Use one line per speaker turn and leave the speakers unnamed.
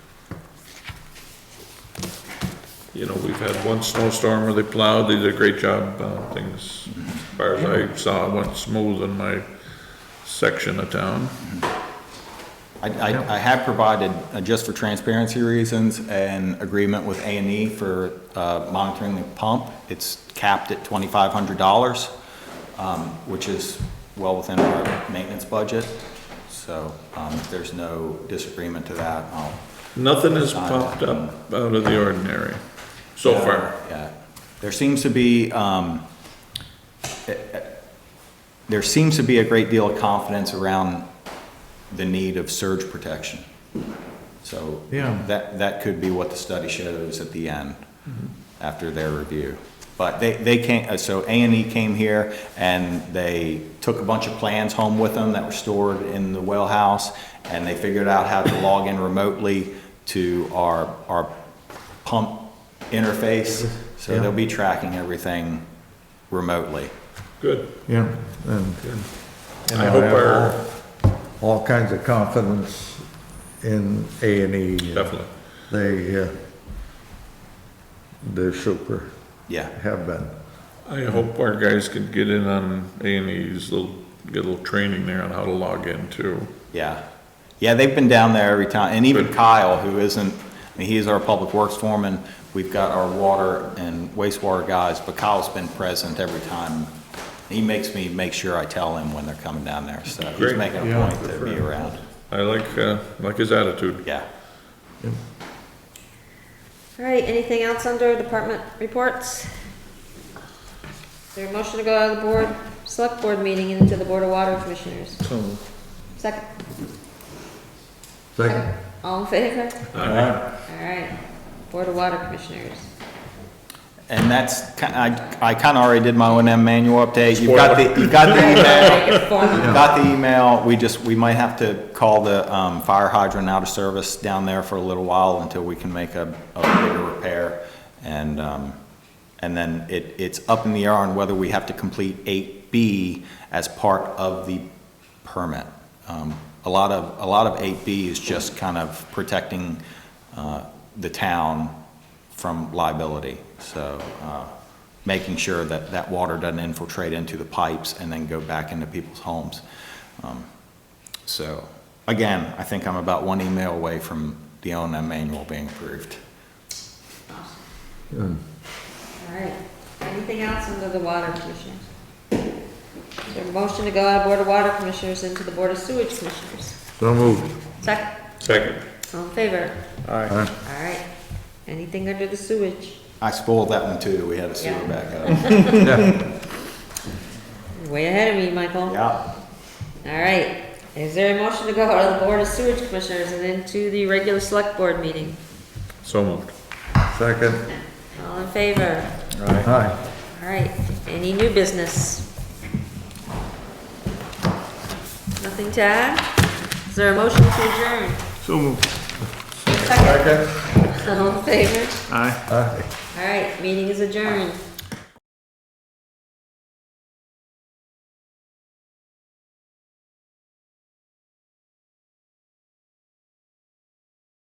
you know, we've had one snowstorm where they plowed, they did a great job, uh, things, as far as I saw, went smooth in my section of town.
I, I, I have provided, uh, just for transparency reasons, an agreement with A and E for, uh, monitoring the pump. It's capped at twenty-five hundred dollars, um, which is well within our maintenance budget. So, um, if there's no disagreement to that, I'll.
Nothing has popped up out of the ordinary, so far.
Yeah. There seems to be, um, eh, eh, there seems to be a great deal of confidence around the need of surge protection. So
Yeah.
that, that could be what the study shows at the end, after their review. But they, they came, uh, so A and E came here and they took a bunch of plans home with them that were stored in the well house and they figured out how to log in remotely to our, our pump interface. So they'll be tracking everything remotely.
Good.
Yeah, and. and
I hope
have
our-
all- All kinds of confidence in A and E.
Definitely.
They, uh, they're super,
Yeah.
have been.
I hope our guys could get in on A and E's, they'll get a little training there on how to log in too.
Yeah. Yeah, they've been down there every time, and even
Good.
Kyle, who isn't, I mean, he is our public works foreman. We've got our water and wastewater guys, but Kyle's been present every time. He makes me make sure I tell him when they're coming down there, so he's
Great.
making a
Yeah.
point to be around.
I like, uh, like his attitude.
Yeah.
All right, anything else under department reports? Is there a motion to go out of the board, select board meeting into the Board of Water Commissioners?
So,
Second?
Second,
All in favor?
I-
All right, Board of Water Commissioners.
And that's, ki- I, I kind of already did my O and M manual update. You've got the, you've got the email.
Make it formal.
Got the email, we just, we might have to call the um, fire hydrant out of service down there for a little while until we can make a, a bigger repair. And, um, and then it, it's up in the air on whether we have to complete eight B as part of the permit. Um, A lot of, a lot of eight B is just kind of protecting uh, the town from liability. So, uh, making sure that that water doesn't infiltrate into the pipes and then go back into people's homes. Um, So, again, I think I'm about one email away from the O and M manual being approved.
All right, anything else under the Water Commissioners? Is there a motion to go out of Board of Water Commissioners into the Board of Sewage Commissioners?
so moved.
Second?
Second.
All in favor?
Aye.
All right, anything under the sewage?
I spoiled that one too, we had a sewer
Yeah.
backup.
You're Way ahead of me, Michael.
Yeah.
All right, is there a motion to go out of the Board of Sewage Commissioners and into the regular select board meeting?
So moved.
Second,
All in favor?
aye.
All right, any new business? Nothing to add? Is there a motion to adjourn?
So moved.
Second,
Second,
all in favor?
Aye.
aye.
All right, meeting is adjourned.